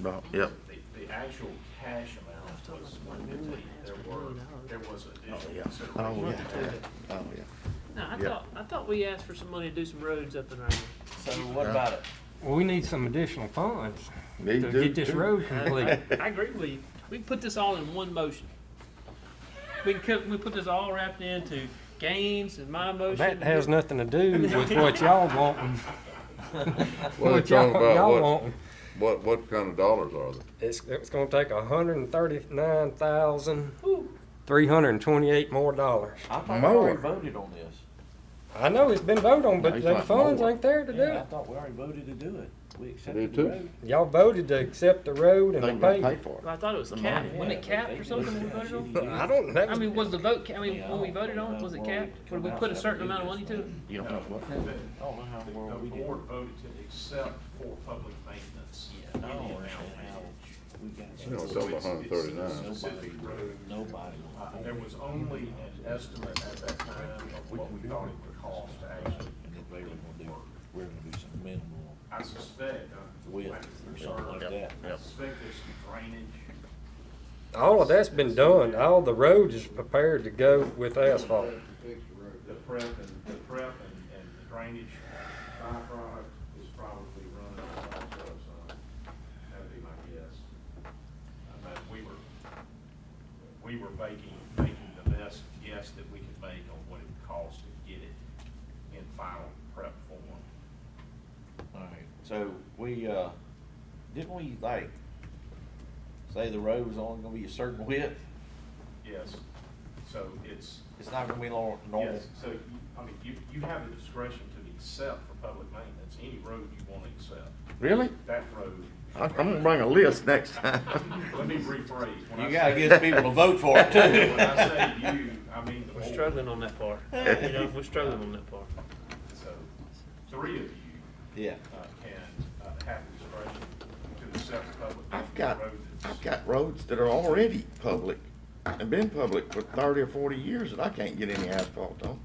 about, yep. The, the actual cash amount was one fifty, there were, there was Oh, additional yeah. consideration. Oh, Right. yeah. Oh, yeah. No, I Yeah. thought, I thought we asked for some money to do some roads up in there. So what about it? Well, we need some additional funds Me to too, get this too. road complete. I agree with you. We can put this all in one motion. We can, cut- we put this all wrapped into Gaines and my motion. That has nothing to do with what y'all wanting. Well, What it's all y'all, y'all about what, wanting. what, what kind of dollars are they? It's, it's gonna take a hundred and thirty-nine thousand, Whew. three hundred and twenty-eight more dollars. I thought we already More. voted on this. I know it's been voted on, No, but he's the like funds more. ain't there to do Yeah, I it. thought we already voted to do it. We do accepted the too. road. Y'all voted to accept the road and They the gonna pay paving. for Well, I thought it was capped, wasn't Yeah, it capped they or did something when we that voted on? shitty I deal. don't know. I mean, was the vote, ca- I mean, Yeah, I when we don't voted on, know was it why we capped? Would come we out put a with certain that amount of money big to it? it. You don't know what? The, I don't know how in the world we the did it. board voted to accept for public maintenance. Yeah, Oh, I don't understand how we You know, got it's so over hundred and thirty-nine. Specific road, nobody. uh, there was only an estimate at that time of what we thought it would cost to actually. And if they were gonna do, we're gonna do some minimal I suspect, uh, width like, or something like that. I suspect there's some drainage. All of that's been done. All the road is prepared to go with asphalt. the prep and, the prep and, and the drainage byproduct is probably running on top of us, uh, that'd be my guess. I mean, we were, we were making, making the best guess that we could make on what it would cost to get it in final prep form. Alright, so we, uh, didn't we like say the road was only gonna be a certain width? Yes, so it's, It's not gonna be nor- normal. yes, so, you- I mean, you, you have the discretion to accept for public maintenance, any road you wanna accept, Really? that road. I- I'm gonna bring a list next time. Let me rephrase. When I You gotta say- get people to vote for it too. When I say you, I mean the We're board. struggling on that part. You know, we're struggling on that part. So, three of you Yeah. uh, can uh, have the discretion to accept the public. I've got, road that's- I've got roads that are already public and been public for thirty or forty years that I can't get any asphalt on.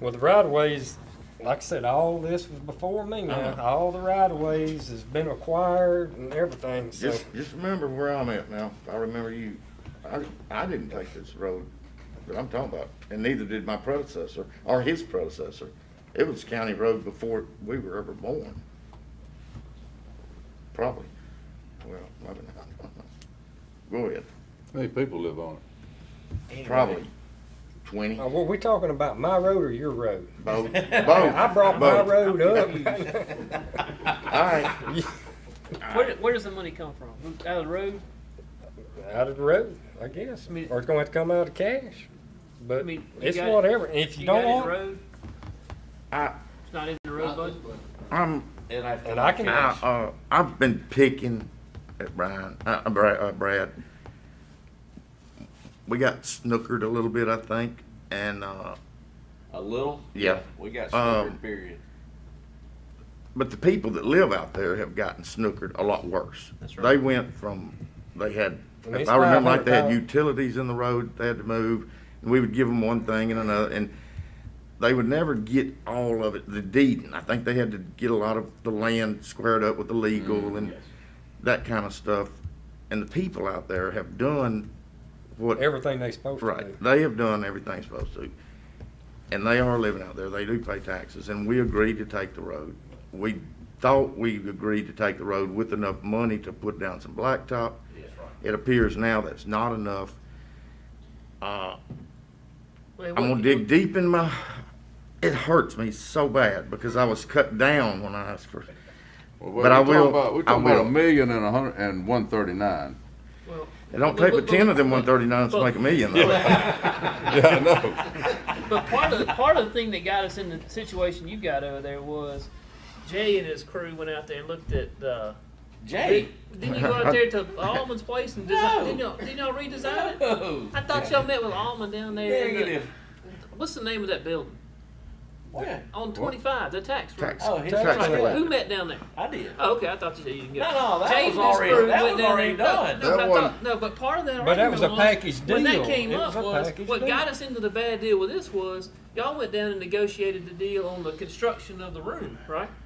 Well, the right of ways, like I said, all this was before me now. Uh-huh. All the right of ways has been acquired and everything, so. Just, just remember where I'm at now. I remember you. I, I didn't take this road that I'm talking about, and neither did my predecessor or his predecessor. It was county road before we were ever born. Probably. Well, maybe not. Go ahead. How many people live on it? Probably twenty. Uh, were we talking about my road or your road? Both. I brought my Both. road up. All right. Where, where does the money come from? Out of the road? Out of the road, I guess. I mean- Or it's gonna have to come out of cash. I But mean, you it's got- whatever. If you got don't it in the want, road? I, It's not in the road budget? I'm, And I, and I can, I, uh, I've been picking at Brian, uh, Brad, uh, Brad. We got snookered a little bit, I think, and, uh, a little? Yeah. We got Um, snowbird period. but the people that live out there have gotten snookered a lot worse. That's right. They went from, they had, And if it's I remember like, they had 500,000. utilities in the road, they had to move, and we would give them one thing and another, and they would never get all of it, the deeding. I think they had to get a lot of the land squared up with the legal and Yes. that kind of stuff. And the people out there have done what everything they supposed to do. Right. They have done everything they're supposed to. And they are living out there. They do pay taxes. And we agreed to take the road. We thought we agreed to take the road with enough money to put down some blacktop. That's right. It appears now that's not enough. Uh, Well, it I'm gonna wouldn't- dig deep in my, it hurts me so bad because I was cut down when I asked for, Well, But I we're talking will- about- We're I talking about will. a million and a hundred, and one thirty-nine. well, it don't but- take but but- ten of them but- one thirty-nines to but- make a million though. Yeah, I know. But part of the part of the thing that got us in the situation you got over there was Jay and his crew went out there and looked at the. Jay. Didn't you go out there to Almond's place and design? Didn't, y'all, didn't y'all redesign it? Oh, I thought y'all met with Almond down there. in the- Negative. what's the name of that building What? on twenty five? The tax. room. Tax- Oh, his tax truck. levy. Who met down there? I did. Oh, okay, I thought you said you didn't get. it. No, no, that Jay was and his already- crew that went was down already there- no, done. No, That but I wasn't- thought, no, but part of that. But that was a argument package When deal. that came It up was a was package what deal. got us into the bad deal with this was y'all went down and negotiated the deal on the construction of the room, right?